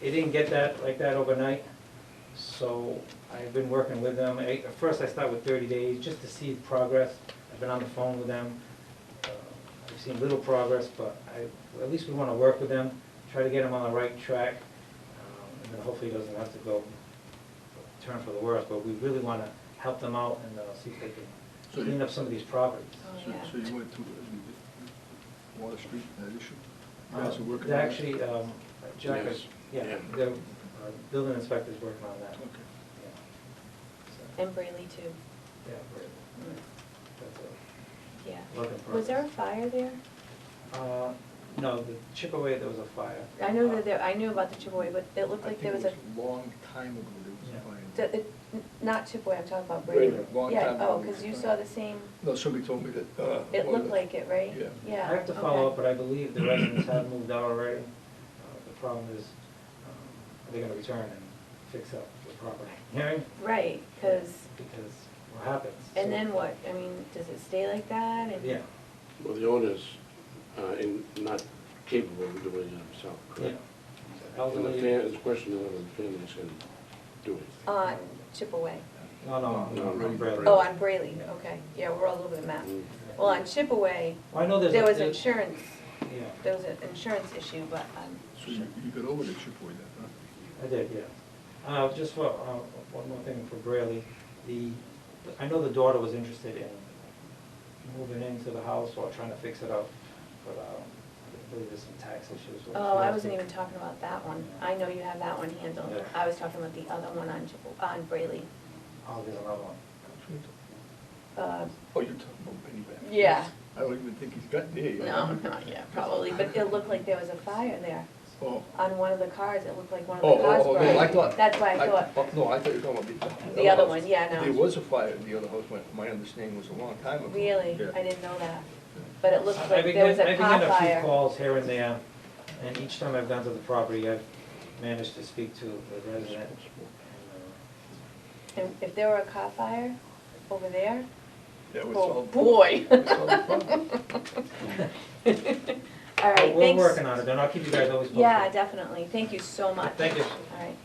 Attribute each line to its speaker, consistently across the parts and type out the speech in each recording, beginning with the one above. Speaker 1: They didn't get that like that overnight, so I've been working with them. I- At first, I start with 30 days, just to see progress. I've been on the phone with them. Uh, I've seen little progress, but I, at least we want to work with them, try to get them on the right track, um, and then hopefully it doesn't have to go turn for the worse, but we really want to help them out and uh, see if they
Speaker 2: So
Speaker 1: can
Speaker 2: you-
Speaker 1: clean up some of these properties.
Speaker 2: So
Speaker 3: Oh, yeah.
Speaker 2: so you went through uh, Water Street, that issue? You guys are
Speaker 1: Um,
Speaker 2: working
Speaker 1: They're
Speaker 2: on that?
Speaker 1: actually, um, Jack is,
Speaker 4: Yes.
Speaker 1: yeah,
Speaker 4: Yeah.
Speaker 1: the uh, building inspector's working on that.
Speaker 2: Okay.
Speaker 1: Yeah. So,
Speaker 3: And Brayley too,
Speaker 1: yeah, we're- that's a
Speaker 3: yeah.
Speaker 1: work in
Speaker 3: Was there a
Speaker 1: progress.
Speaker 3: fire there?
Speaker 1: Uh, No, the Chippeway, there was a fire.
Speaker 3: I know that there, I knew about the Chipaway, but it looked
Speaker 2: I
Speaker 3: like
Speaker 2: think
Speaker 3: there was a,
Speaker 2: long time ago
Speaker 1: Yeah.
Speaker 2: there was a
Speaker 3: the-
Speaker 2: fire.
Speaker 3: it- not Chipaway, I'm talking about Brayley.
Speaker 2: Brayley, long
Speaker 3: Yeah,
Speaker 2: time
Speaker 3: oh,
Speaker 2: ago.
Speaker 3: because you saw the same,
Speaker 2: No, somebody told me that. uh, one
Speaker 3: it
Speaker 2: of
Speaker 3: looked
Speaker 2: the-
Speaker 3: like it, right?
Speaker 2: Yeah.
Speaker 3: Yeah.
Speaker 1: I have to follow
Speaker 3: okay.
Speaker 1: up, but I believe the residents have moved out already. Uh, The problem is, um, are they gonna return and fix up the property? Hearing?
Speaker 3: Right, because,
Speaker 1: Because what happens?
Speaker 3: and
Speaker 1: So-
Speaker 3: then what, I mean, does it stay like that? And-
Speaker 1: Yeah,
Speaker 4: Well, the owner's uh, in- not capable of doing it himself,
Speaker 1: yeah.
Speaker 4: correct? And the
Speaker 1: Elderly.
Speaker 4: fam- the question is whether the families can do
Speaker 5: Oh.
Speaker 4: it.
Speaker 3: On Chipaway.
Speaker 1: No, no,
Speaker 4: No,
Speaker 1: no,
Speaker 4: no,
Speaker 1: I'm Bradley.
Speaker 3: Oh, on Brayley,
Speaker 1: Yeah.
Speaker 3: okay, yeah, we're all over the map.
Speaker 4: Mm.
Speaker 3: Well, on Chipaway,
Speaker 1: Well, I know there's.
Speaker 3: there
Speaker 1: a-
Speaker 3: was insurance,
Speaker 1: Yeah,
Speaker 3: there was an insurance issue, but, um,
Speaker 2: So you, you got over the Chippewa then, huh?
Speaker 1: I did, yeah. Uh, just for, uh, one more thing for Brayley, the, I know the daughter was interested in moving into the house or trying to fix it up, but, um, I believe there's some tax issues. with-
Speaker 3: Oh, I wasn't even talking about that one. I know you have that one handled.
Speaker 1: Yeah.
Speaker 3: I was talking about the other one on, Chip- on Brayley.
Speaker 1: Oh, there's another one.
Speaker 3: Uh,
Speaker 2: Oh, you're talking about Penny Back?
Speaker 3: Yeah.
Speaker 2: I don't even think he's got there yet.
Speaker 3: No, not yet, probably, but it looked like there was a fire there
Speaker 2: Oh.
Speaker 3: on one of the cars. It looked like one of
Speaker 2: Oh,
Speaker 3: the
Speaker 2: oh,
Speaker 3: cars
Speaker 2: oh,
Speaker 3: burned.
Speaker 2: no, I thought.
Speaker 3: That's why I thought,
Speaker 2: oh, No, I thought you were talking about the.
Speaker 3: The other
Speaker 2: house.
Speaker 3: one, yeah, no.
Speaker 2: There was a fire in the other house, my, my understanding was a long time ago.
Speaker 3: really,
Speaker 2: Yeah.
Speaker 3: I didn't know that. But it looked
Speaker 1: I- I
Speaker 3: like there
Speaker 1: began-
Speaker 3: was a
Speaker 1: I
Speaker 3: car
Speaker 1: began a few
Speaker 3: fire.
Speaker 1: calls here and there, and each time I've gone to the property, I've managed to speak to the resident.
Speaker 3: And if there were a car fire over there,
Speaker 2: That was
Speaker 3: oh,
Speaker 2: all.
Speaker 3: boy.
Speaker 2: That's all the problem.
Speaker 3: All right,
Speaker 1: But We're
Speaker 3: thanks.
Speaker 1: working on it, and I'll keep you guys always posted.
Speaker 3: Yeah, definitely. Thank you so much.
Speaker 1: Thank you.
Speaker 3: All right.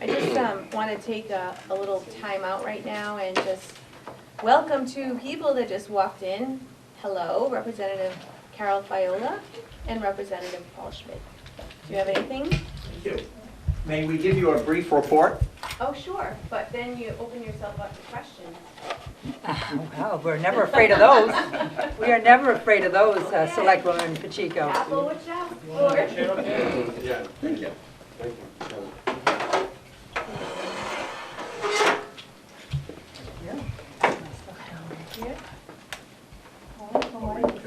Speaker 3: I just um, want to take a a little time out right now and just welcome two people that just walked in. Hello, Representative Carol Fiola and Representative Paul Schmidt. Do you have anything?
Speaker 6: Thank you. May we give you a brief report?
Speaker 3: Oh, sure, but then you open yourself up to questions.
Speaker 5: Well, we're never afraid of those. We are never afraid of those, uh,
Speaker 3: Okay.
Speaker 5: Selectwoman Pacheco.
Speaker 3: Apple, what you ask for?
Speaker 4: Yeah, thank you. Thank you.
Speaker 3: Here.
Speaker 2: I'll read it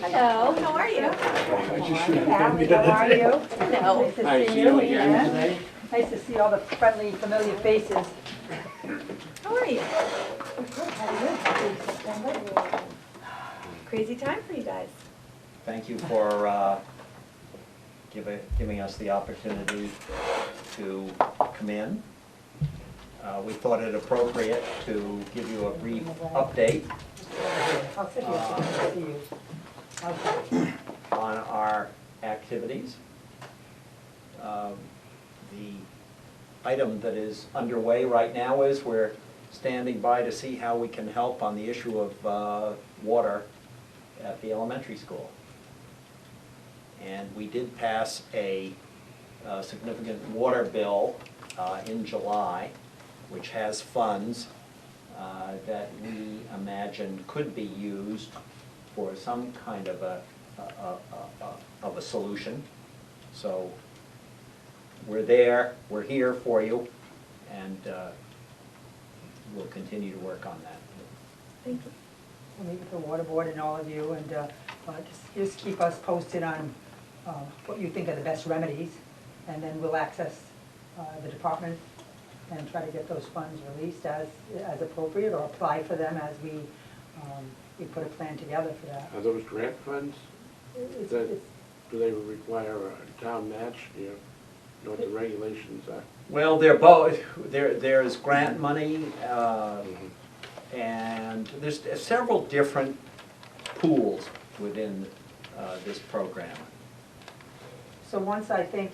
Speaker 2: down.
Speaker 3: Hello, how are you?
Speaker 2: I just shouldn't have
Speaker 5: Allie,
Speaker 2: done
Speaker 5: how
Speaker 2: that.
Speaker 5: are you?
Speaker 3: Hello.
Speaker 5: Nice to see you. yeah. Oh, Nice to see all the friendly, familiar faces.
Speaker 3: How are you? Crazy time for you guys.
Speaker 6: Thank you for uh, givi- giving us the opportunity to come in. Uh, We thought it appropriate to give you a brief update
Speaker 5: I'll sit here so I can see you. Okay.
Speaker 6: on our activities. Um, The item that is underway right now is we're standing by to see how we can help on the issue of uh, water at the elementary school. And we did pass a uh, significant water bill uh, in July, which has funds uh, that we imagine could be used for some kind of a, a- a- a- a- of a solution. So we're there, we're here for you, and uh, we'll continue to work on that.
Speaker 3: Thank you.
Speaker 5: We'll meet with the water board and all of you, and uh, uh, just- just keep us posted on uh, what you think are the best remedies, and then we'll access uh, the department and try to get those funds released as, as appropriate, or apply for them as we, um, we put a plan together for that.
Speaker 4: Are those grant funds,
Speaker 5: It's-
Speaker 4: Uh, that,
Speaker 5: it's-
Speaker 4: do they require a town match, Do you know what the regulations are?
Speaker 6: Well, they're both, there, there is grant money, uh, and there's several different pools within uh, this program.
Speaker 5: So once I think